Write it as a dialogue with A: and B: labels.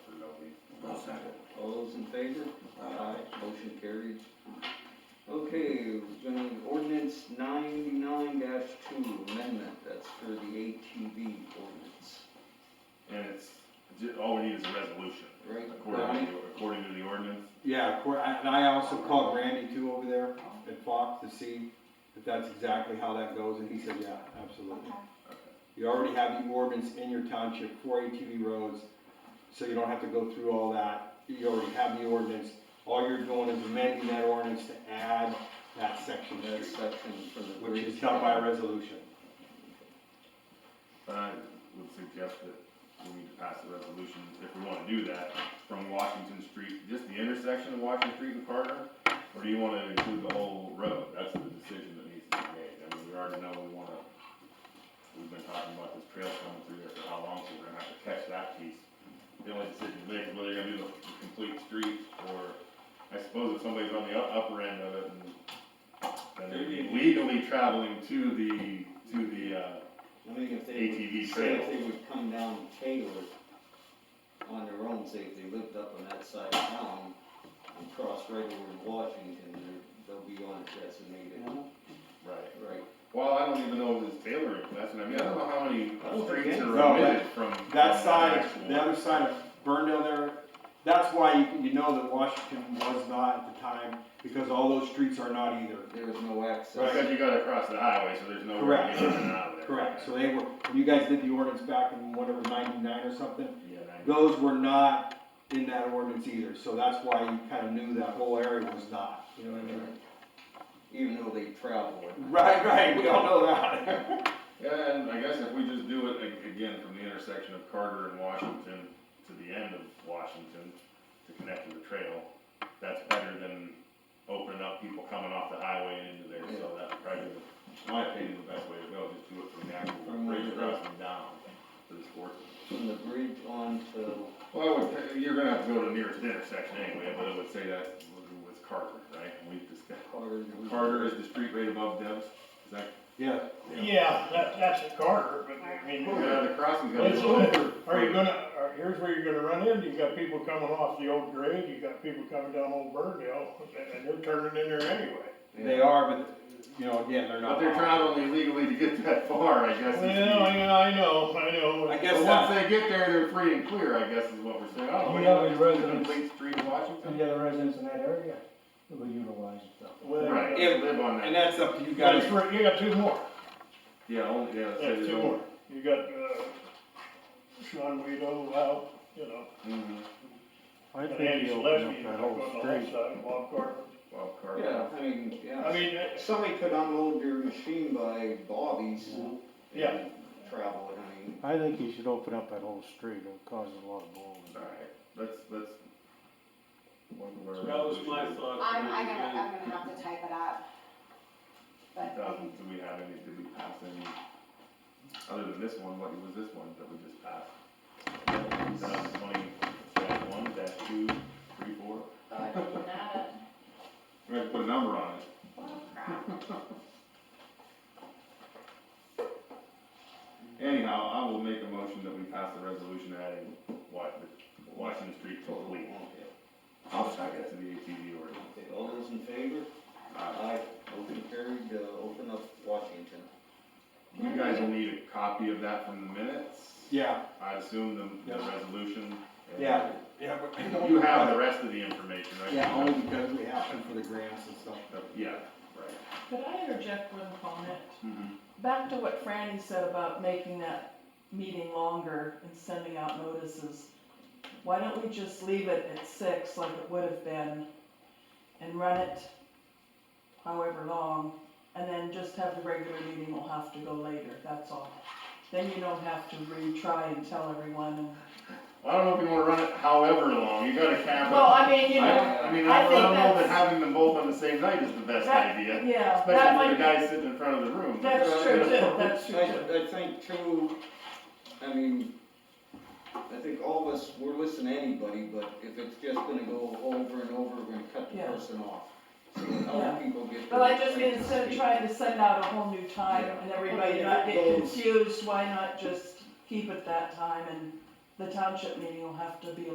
A: favor? Motion carried. Okay, zoning ordinance ninety-nine two amendment, that's for the ATV ordinance,
B: And it's, ju- all we need is a resolution,
A: right?
B: according to, according to the ordinance.
C: Yeah, of course, and I also called Randy too over there at Fox to see if that's exactly how that goes, and he said, yeah, absolutely. You already have the ordinance in your township for ATV roads, so you don't have to go through all that. You already have the ordinance. All you're doing is amending that ordinance to add that section, of
A: That
C: street,
A: section for the.
C: which is done by resolution.
B: But I would suggest that we need to pass a resolution, if we wanna do that, from Washington Street, just the intersection of Washington Street and Carter? Or do you wanna include the whole road? That's the decision that needs to be made. I mean, we already know we wanna, we've been talking about this trail coming through there for how long, so we're gonna have to catch that piece. The only decision to make is whether you're gonna do the the complete street, or I suppose if somebody's on the u- upper end of it and then they're legally traveling to the, to the, uh,
A: I mean, if they. would-
B: ATV
A: say
B: trail.
A: If they would come down Taylor on their own, say if they lived up on that side of town and crossed right over to Washington, they're- they'll be on a designated,
B: right.
A: right?
B: Well, I don't even know if it's tailoring, that's what I mean, I don't know how many
A: I don't think
B: streets
A: any-
C: No,
B: are omitted from.
C: That
B: from
C: side,
B: actual-
C: the other side of Burndale there, that's why you, you know that Washington was not at the time, because all those streets are not either.
A: There was no access.
B: Except you gotta cross the highway, so there's no way to
C: Correct.
B: get in and out of there.
C: Correct, so they were, when you guys did the ordinance back in whatever, ninety-nine or something,
B: Yeah, and I-
C: those were not in that ordinance either, so that's why you kind of knew that whole area was not, you know what I mean?
A: Even though they travel.
C: Right, right, we all know that.
B: yeah, and I guess if we just do it ag- again from the intersection of Carter and Washington to the end of Washington to connect to the trail, that's better than opening up people coming off the highway and into there, so that's probably, in my opinion, the best way to go, just do it from the actual
A: From where
B: bridge
A: it is.
B: crossing down to the sports.
A: From the bridge on to,
B: Well, I would- you're gonna have to go to the nearest intersection anyway, but it would say that was Carter, right? And we just got,
A: Carter.
B: Carter is the street right above Debs, is that?
C: Yeah,
D: Yeah, that, that's a Carter, but I mean,
B: Yeah, the crossing's gonna be
D: Oh, it's
B: a little.
D: over. Are you gonna, are- here's where you're gonna run in, you got people coming off the old grade, you got people coming down Old Burndale, and they're turning in there anyway.
C: they are, but, you know, again, they're not.
B: But they're traveling illegally to get that far, I guess. is the-
D: Well, I, I know, I
C: I
D: know.
C: guess
B: But
C: that-
B: once they get there, they're free and clear, I guess is what we're saying. I don't
E: Any
B: know,
E: other
B: it's a
E: residents?
B: Complete street in Washington.
E: Any other residents in that area that would utilize it though?
D: Well,
B: Right,
D: you
C: Yeah.
B: live on
C: And
B: that.
C: that's up to you
D: got-
C: guys.
D: You got two more,
B: Yeah, only, yeah.
D: yeah, two more, you got, uh, Sean Weedo out, you know,
B: Mm-hmm,
E: I
D: and Andy Gillespie, on the whole side, Bob Carter.
B: well, Carter.
A: Yeah, I mean, yeah.
D: I mean, it's-
A: Somebody could unload their machine by Bobby's.
C: Mm-hmm.
D: Yeah.
A: and Travel it, I mean.
E: I think you should open up that whole street, it'll cause a lot of blowing.
B: Alright, let's, let's.
F: That was my thought.
G: I'm, I'm gonna, I'm gonna have to type it up. But I
B: Um,
G: can,
B: do we have any, did we pass any, other than this one, what was this one that we just passed? That twenty, dash one, dash two, three, four,
G: but that,
B: we're gonna put a number on it.
G: well, crap.
B: Anyhow, I will make a motion that we pass the resolution adding Wa- the Washington Street to the lead. I'll second that to the ATV order. Uh,
A: Okay, all those in favor? Aye. Motion carried, uh, open up Washington.
B: You guys will need a copy of that from the minutes,
C: Yeah,
B: I assume the, the
C: Yeah.
B: resolution. and-
C: yeah, yeah. but-
B: You have the rest of the information, right?
C: Yeah, only because we have them for the grants and stuff.
B: Uh, Yeah, right.
H: Could I interject one comment?
B: Mhm.
H: Back to what Franny said about making that meeting longer and sending out notices. Why don't we just leave it at six like it would have been and run it however long? And then just have the regular meeting, we'll have to go later, that's all. Then you don't have to retry and tell everyone and.
B: I don't know if you wanna run it however long, you gotta cap it.
H: Well, I mean,
B: I,
H: you know,
B: I mean,
H: I
B: I don't
H: think
B: know that
H: that's-
B: having them both on the same night is the best
H: That-
B: idea,
H: yeah, that
B: especially for the
H: might,
B: guy sitting in front of the room.
H: that's true too, that's true too.
A: I, I think too, I mean, I think all of us, we're listening to anybody, but if it's just gonna go over and over, we're gonna cut the
H: Yeah.
A: person off. So that
H: Yeah.
A: other people get.
H: But I
A: the
H: just,
A: right to
H: instead of
A: speak.
H: trying to send out a whole new time and everybody not get confused, why not just keep it that time and the township meeting will have to be a